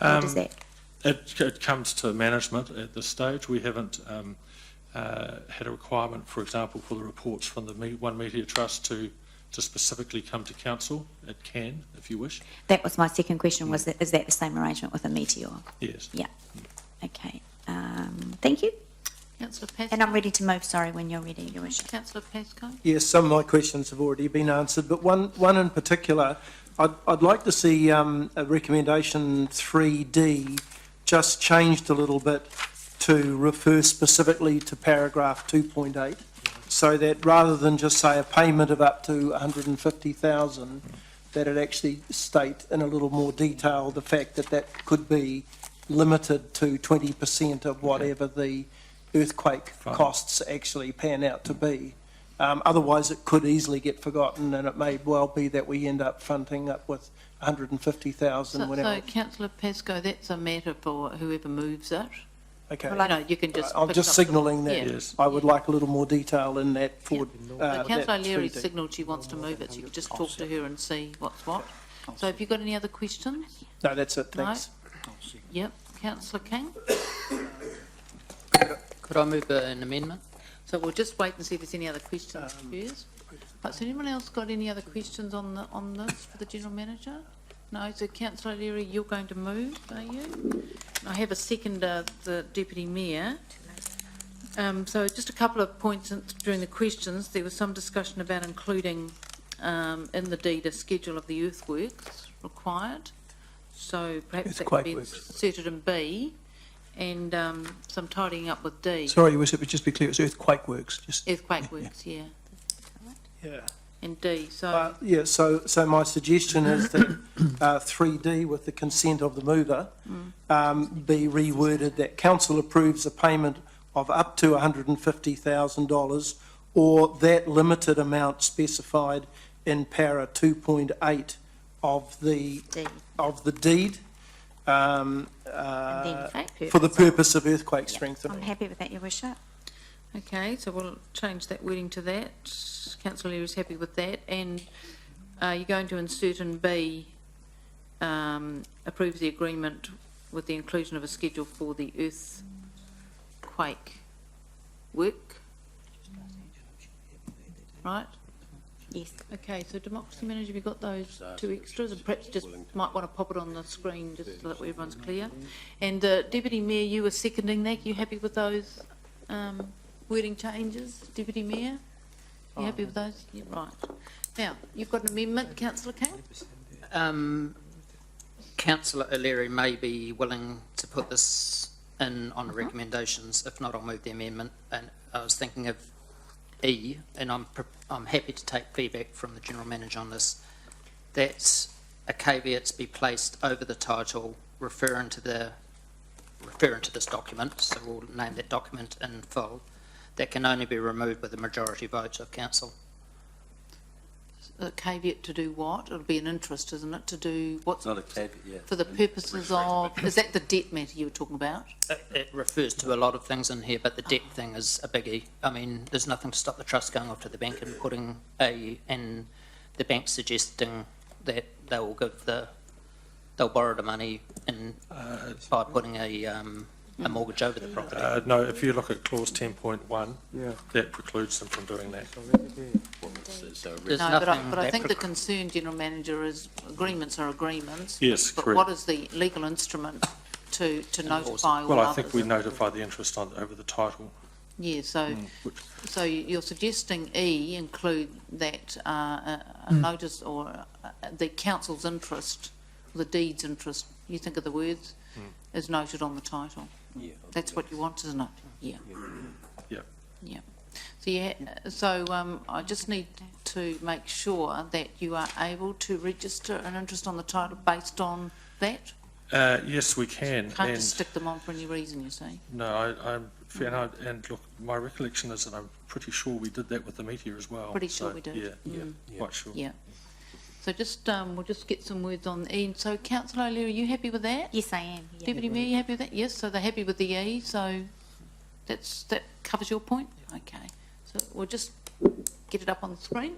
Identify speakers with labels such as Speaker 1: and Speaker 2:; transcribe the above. Speaker 1: How
Speaker 2: Um,
Speaker 1: does that?
Speaker 2: It, it comes to management at this stage. We haven't um, uh, had a requirement, for example, for the reports from the Me- One Media Trust to, to specifically come to council. It can, if you wish.
Speaker 1: That was my second question, was that, is that the same arrangement with a meteor?
Speaker 2: Yes.
Speaker 1: Yeah, okay. Um, thank you,
Speaker 3: Councillor
Speaker 1: and I'm
Speaker 3: Pascoe?
Speaker 1: ready to move, sorry, when you're ready, Your Worship.
Speaker 3: Councillor Pascoe?
Speaker 4: Yes, some of my questions have already been answered, but one, one in particular, I'd, I'd like to see um, a recommendation 3D just changed a little bit to refer specifically to paragraph 2.8, so that rather than just say a payment of up to 150,000, that it actually state in a little more detail the fact that that could be limited to 20% of whatever the earthquake
Speaker 2: Fine.
Speaker 4: costs actually pan out to be. Um, Otherwise, it could easily get forgotten, and it may well be that we end up fronting up with 150,000
Speaker 3: So, so
Speaker 4: whenever.
Speaker 3: councillor Pascoe, that's a matter for whoever moves it.
Speaker 4: Okay,
Speaker 3: You know, you can just.
Speaker 4: I'm
Speaker 3: pick
Speaker 4: just
Speaker 3: up the-
Speaker 4: signalling
Speaker 3: yeah.
Speaker 4: that
Speaker 2: Yes.
Speaker 4: I would like a little more detail in that for.
Speaker 3: So
Speaker 4: uh,
Speaker 3: councillor
Speaker 4: that
Speaker 3: Leary
Speaker 4: 3D.
Speaker 3: signalled she wants to move it, so you can just talk to her and see what's what. So have you got any other questions?
Speaker 4: No, that's it,
Speaker 3: No?
Speaker 4: thanks.
Speaker 3: Yep, councillor King?
Speaker 5: Could I move uh, an amendment?
Speaker 3: So we'll just wait and see if there's any other questions
Speaker 4: Um,
Speaker 3: first. Right, so anyone else got any other questions on the, on this for the general manager? No, so councillor Leary, you're going to move, are you? I have a second, uh, the deputy mayor. Um, so just a couple of points in- during the questions, there was some discussion about including, um, in the deed a schedule of the earthworks required. So perhaps that could
Speaker 4: Earthquake
Speaker 3: be
Speaker 4: works.
Speaker 3: inserted in B and, um, some tidying up with D.
Speaker 4: Sorry, Your Worship, but just be clear, it's earthquake works, just.
Speaker 3: Earthquake works, yeah,
Speaker 4: Yeah.
Speaker 3: and D, so,
Speaker 4: Uh, Yeah, so, so my suggestion is that uh, 3D, with the consent of the mover, um, be reworded that council approves a payment of up to $150,000 or that limited amount specified in para 2.8 of the,
Speaker 1: D,
Speaker 4: of the deed um,
Speaker 1: and
Speaker 4: uh,
Speaker 1: then fact.
Speaker 4: for the purpose of earthquake
Speaker 1: I'm
Speaker 4: strengthening.
Speaker 1: happy with that, Your Worship.
Speaker 3: okay, so we'll change that wording to that. Councillor Leary's happy with that, and uh, you're going to insert in B, um, approves the agreement with the inclusion of a schedule for the earthquake work. Right,
Speaker 1: Yes,
Speaker 3: okay, so democracy manager, we got those two extras, and perhaps just might want to pop it on the screen just so that everyone's clear. And uh, Deputy Mayor, you were seconding that, you happy with those um, wording changes, Deputy Mayor? You happy with those? Yeah, right. Now, you've got an amendment, councillor King?
Speaker 5: Um, councillor O'Leary may be willing to put this in on the recommendations. If not, I'll move the amendment. And I was thinking of E, and I'm, pre- I'm happy to take feedback from the general manager on this. That's a caveat to be placed over the title referring to the, referring to this document, so we'll name that document in full. That can only be removed with a majority vote of council.
Speaker 3: A caveat to do what? It'll be an interest, isn't it, to do
Speaker 6: It's
Speaker 3: what's,
Speaker 6: not a caveat, yeah.
Speaker 3: for the purposes of, is that the debt matter you were talking about?
Speaker 5: It it refers to a lot of things in here, but the debt thing is a biggie. I mean, there's nothing to stop the trust going off to the bank and putting a, and the bank suggesting that they will give the, they'll borrow the money and by putting a, um, a mortgage over the property.
Speaker 2: Uh, no, if you look at clause 10.1, that precludes them from doing that.
Speaker 5: There's
Speaker 3: No, but I,
Speaker 5: nothing
Speaker 3: but I
Speaker 5: that
Speaker 3: think the
Speaker 5: preclu-
Speaker 3: concern, General Manager, is agreements are agreements.
Speaker 2: Yes,
Speaker 3: But what
Speaker 2: correct.
Speaker 3: is the legal instrument to, to notify all
Speaker 2: Well,
Speaker 3: others?
Speaker 2: I think we notify the interest on, over the title.
Speaker 3: Yeah, so,
Speaker 2: which-
Speaker 3: so you're suggesting E include that, uh, a a notice or uh, the council's interest, the deed's interest, you think of the words,
Speaker 2: Mm.
Speaker 3: is noted on the title.
Speaker 6: Yeah.
Speaker 3: That's what you want, isn't it? Yeah.
Speaker 2: Yeah.
Speaker 3: Yeah. So you, ha- so, um, I just need to make sure that you are able to register an interest on the title based on that.
Speaker 2: Uh, yes, we can.
Speaker 3: Can't just
Speaker 2: And
Speaker 3: stick them on for any reason, you see.
Speaker 2: no, I, I'm, and, I, and look, my recollection is that I'm pretty sure we did that with the meteor as well.
Speaker 3: Pretty sure
Speaker 2: So,
Speaker 3: we did. Mm.
Speaker 2: Yeah, yeah, quite sure.
Speaker 3: Yeah. So just, um, we'll just get some words on E. So councillor O'Leary, are you happy with that?
Speaker 1: yes, I am, yeah.
Speaker 3: Deputy Mayor, you happy with that? Yes, so they're happy with the E, so that's, that covers your point? Okay. So we'll just get it up on the screen.